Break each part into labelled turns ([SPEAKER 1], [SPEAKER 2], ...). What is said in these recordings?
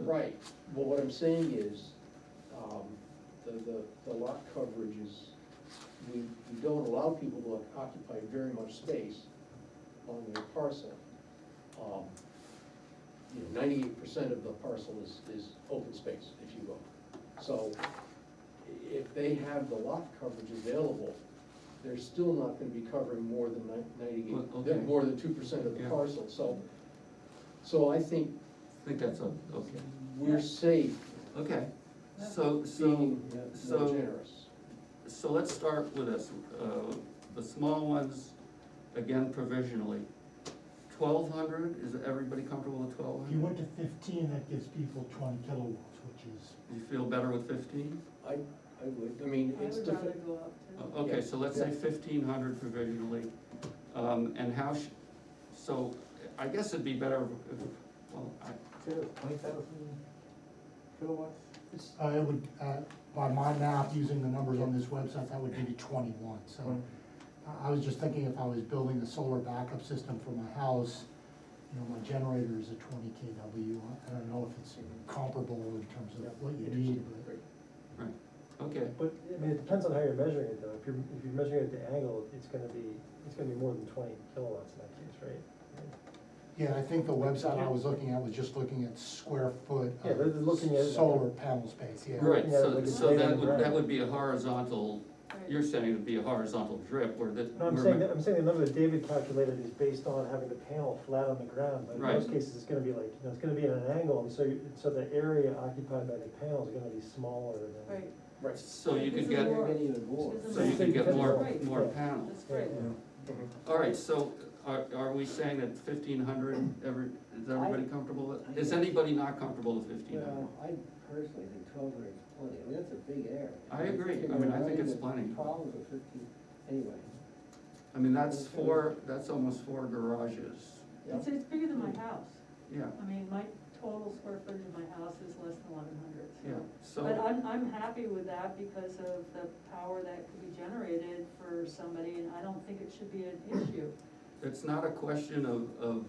[SPEAKER 1] right, but what I'm saying is, um, the, the, the lot coverage is, we, we don't allow people to occupy very much space on their parcel. Um, You know, ninety-eight percent of the parcel is, is open space, if you will. So i- if they have the lot coverage available, they're still not gonna be covering more than ni-
[SPEAKER 2] Well,
[SPEAKER 1] ninety-eight,
[SPEAKER 2] okay.
[SPEAKER 1] than more than two percent of the
[SPEAKER 2] Yeah.
[SPEAKER 1] parcel, so. So I think
[SPEAKER 2] I think that's a, okay,
[SPEAKER 1] we're safe
[SPEAKER 2] okay. So, so,
[SPEAKER 1] being more
[SPEAKER 2] so-
[SPEAKER 1] generous.
[SPEAKER 2] so let's start with this, uh, the small ones, again provisionally. Twelve hundred, is everybody comfortable with twelve
[SPEAKER 3] If you
[SPEAKER 2] hundred?
[SPEAKER 3] went to fifteen, that gives people twenty kilowatts, which is,
[SPEAKER 2] You feel better with fifteen?
[SPEAKER 1] I, I would, I mean,
[SPEAKER 4] I
[SPEAKER 1] it's
[SPEAKER 4] would
[SPEAKER 1] the,
[SPEAKER 4] rather go
[SPEAKER 2] Oh,
[SPEAKER 4] up to.
[SPEAKER 2] Okay, so let's say
[SPEAKER 1] Yeah.
[SPEAKER 2] fifteen hundred provisionally, um, and how sh- so I guess it'd be better if, well, I,
[SPEAKER 5] Twenty thousand kilowatts?
[SPEAKER 3] uh, it would, uh, by my math, using the numbers on this website, that would give you twenty-one, so. I- I was just thinking if I was building a solar backup system for my house, you know, my generator is a twenty KW. I don't know if it's comparable in terms of what you need, but.
[SPEAKER 2] right, okay,
[SPEAKER 5] But, I mean, it depends on how you're measuring it though, if you're, if you're measuring it at the angle, it's gonna be, it's gonna be more than twenty kilowatts in that case, right?
[SPEAKER 3] Yeah, I think the website I was looking at was just looking at square foot
[SPEAKER 5] Yeah, they're looking at it
[SPEAKER 3] of
[SPEAKER 5] like-
[SPEAKER 3] solar panel space, yeah.
[SPEAKER 2] right,
[SPEAKER 5] Yeah,
[SPEAKER 2] so,
[SPEAKER 5] like it's
[SPEAKER 2] so
[SPEAKER 5] laid
[SPEAKER 2] that
[SPEAKER 5] on the
[SPEAKER 2] would, that
[SPEAKER 5] ground.
[SPEAKER 2] would be a horizontal,
[SPEAKER 4] Right.
[SPEAKER 2] you're saying it'd be a horizontal drip where the.
[SPEAKER 5] No, I'm
[SPEAKER 2] where
[SPEAKER 5] saying,
[SPEAKER 2] ma-
[SPEAKER 5] that- I'm saying the number that David calculated is based on having the panel flat on the ground, but in
[SPEAKER 2] Right.
[SPEAKER 5] most cases, it's gonna be like, you know, it's gonna be at an angle, and so, you- so the area occupied by the panel is gonna be smaller than.
[SPEAKER 4] Right,
[SPEAKER 1] Right.
[SPEAKER 2] So you could
[SPEAKER 4] It's
[SPEAKER 2] get,
[SPEAKER 4] more-
[SPEAKER 1] Many even more.
[SPEAKER 4] It's
[SPEAKER 2] so you could get more,
[SPEAKER 4] Right.
[SPEAKER 2] more panels.
[SPEAKER 4] that's great.
[SPEAKER 2] All right, so are, are we saying that fifteen hundred, every, is everybody comfortable with? Is anybody not comfortable with fifteen hundred?
[SPEAKER 6] Well, I personally think twelve hundred is plenty, I mean, that's a big error.
[SPEAKER 2] I agree. I mean, I think it's plenty.
[SPEAKER 6] Problems with fifteen, anyway.
[SPEAKER 2] I mean, that's four, that's almost four garages,
[SPEAKER 4] It's, it's bigger than my house.
[SPEAKER 2] yeah,
[SPEAKER 4] I mean, my total square footage of my house is less than eleven hundred,
[SPEAKER 2] yeah,
[SPEAKER 4] so. But
[SPEAKER 2] so,
[SPEAKER 4] I'm, I'm happy with that because of the power that could be generated for somebody, and I don't think it should be an issue.
[SPEAKER 2] it's not a question of, of,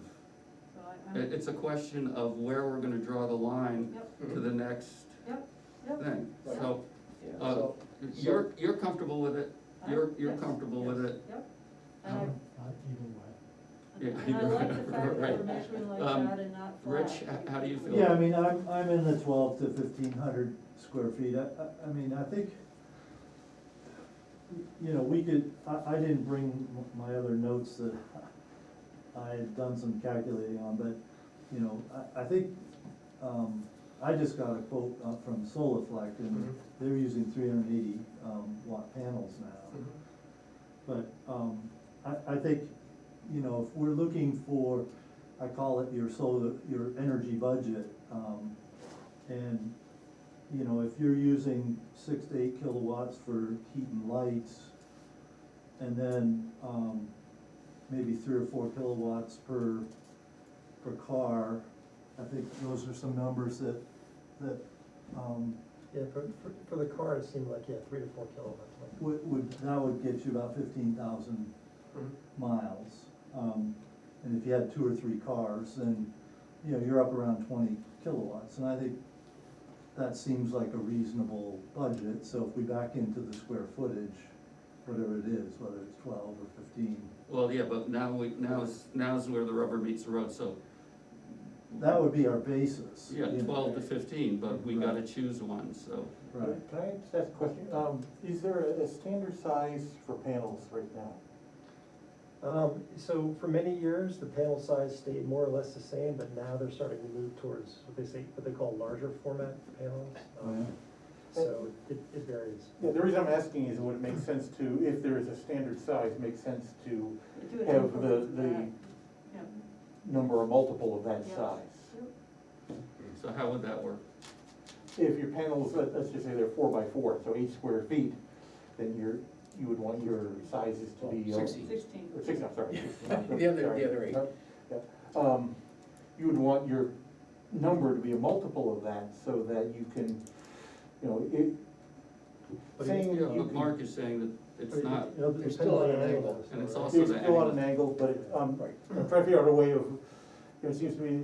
[SPEAKER 4] So I,
[SPEAKER 2] it,
[SPEAKER 4] I'm,
[SPEAKER 2] it's a question of where we're gonna draw the line
[SPEAKER 4] yep,
[SPEAKER 2] to the next
[SPEAKER 4] yep, yep.
[SPEAKER 2] thing, so,
[SPEAKER 6] Yeah.
[SPEAKER 2] uh,
[SPEAKER 1] So,
[SPEAKER 2] you're, you're comfortable with it, you're,
[SPEAKER 4] I-
[SPEAKER 2] you're
[SPEAKER 4] yes,
[SPEAKER 2] comfortable with
[SPEAKER 4] yes,
[SPEAKER 2] it, Um,
[SPEAKER 4] Yep. And
[SPEAKER 5] Uh-huh.
[SPEAKER 4] I,
[SPEAKER 3] Not even wet.
[SPEAKER 2] Yeah,
[SPEAKER 4] and I like the fact that
[SPEAKER 2] right.
[SPEAKER 4] we're measuring like
[SPEAKER 2] Um,
[SPEAKER 4] that and not flat.
[SPEAKER 2] Rich, h- how do you feel?
[SPEAKER 7] Yeah, I mean, I'm, I'm in the twelve to fifteen hundred square feet, I, I, I mean, I think, you know, we could, I, I didn't bring m- my other notes that I had done some calculating on, but, you know, I, I think, um, I just got a quote uh, from Solaflect,
[SPEAKER 1] Mhm.
[SPEAKER 7] and they're using three hundred eighty, um, watt panels now.
[SPEAKER 1] Mm-hmm.
[SPEAKER 2] Mhm.
[SPEAKER 7] But, um, I, I think, you know, if we're looking for, I call it your solar, your energy budget, um, and, you know, if you're using six to eight kilowatts for heat and lights, and then, um, maybe three or four kilowatts per, per car, I think those are some numbers that, that, um,
[SPEAKER 5] Yeah, for, for, for the car, it seemed like, yeah, three to four kilowatts, like.
[SPEAKER 7] would, would, that would get you about fifteen thousand miles. Um, and if you had two or three cars, then, you know, you're up around twenty kilowatts, and I think that seems like a reasonable budget, so if we back into the square footage, whatever it is, whether it's twelve or fifteen,
[SPEAKER 2] Well, yeah, but now we, now's, now's where the rubber meets the road, so.
[SPEAKER 7] that would be our basis.
[SPEAKER 2] Yeah,
[SPEAKER 7] you know.
[SPEAKER 2] twelve to fifteen, but we
[SPEAKER 7] Right.
[SPEAKER 2] gotta choose one, so.
[SPEAKER 7] Right,
[SPEAKER 5] Can I just ask a question?
[SPEAKER 8] Um, is there a a standard size for panels right now?
[SPEAKER 5] Um, so for many years, the panel size stayed more or less the same, but now they're starting to move towards what they say, what they call larger format panels.
[SPEAKER 7] oh,
[SPEAKER 5] Um,
[SPEAKER 7] yeah,
[SPEAKER 5] So it, it varies.
[SPEAKER 8] Yeah, the reason I'm asking is would it make sense to, if there is a standard size, make sense to
[SPEAKER 4] Do it
[SPEAKER 8] have
[SPEAKER 4] for
[SPEAKER 8] the,
[SPEAKER 4] that.
[SPEAKER 8] the
[SPEAKER 4] Yeah.
[SPEAKER 8] number a multiple of that
[SPEAKER 4] Yeah.
[SPEAKER 8] size?
[SPEAKER 2] So how would that work?
[SPEAKER 8] If your panels, let- let's just say they're four by four, so eight square feet, then you're, you would want your sizes to be. uh,
[SPEAKER 1] Sixty.
[SPEAKER 4] Sixteen.
[SPEAKER 8] or Six, I'm sorry.
[SPEAKER 1] The other-
[SPEAKER 8] Sorry.
[SPEAKER 1] the other eight.
[SPEAKER 8] Yeah. Um, You would want your number to be a multiple of that so that you can, you know, it,
[SPEAKER 5] But
[SPEAKER 8] saying
[SPEAKER 2] Yeah,
[SPEAKER 8] you
[SPEAKER 2] but
[SPEAKER 8] can-
[SPEAKER 2] Mark is saying that it's not,
[SPEAKER 5] You know, it
[SPEAKER 1] It's
[SPEAKER 5] depends
[SPEAKER 1] still
[SPEAKER 5] on
[SPEAKER 1] at an
[SPEAKER 5] the
[SPEAKER 1] angle,
[SPEAKER 5] angle.
[SPEAKER 2] and it's
[SPEAKER 5] right?
[SPEAKER 2] also
[SPEAKER 8] It's
[SPEAKER 2] the
[SPEAKER 8] still on
[SPEAKER 2] angle.
[SPEAKER 8] an angle, but, um,
[SPEAKER 1] Right.
[SPEAKER 8] I'm trying to figure out a way of, you know, it seems to me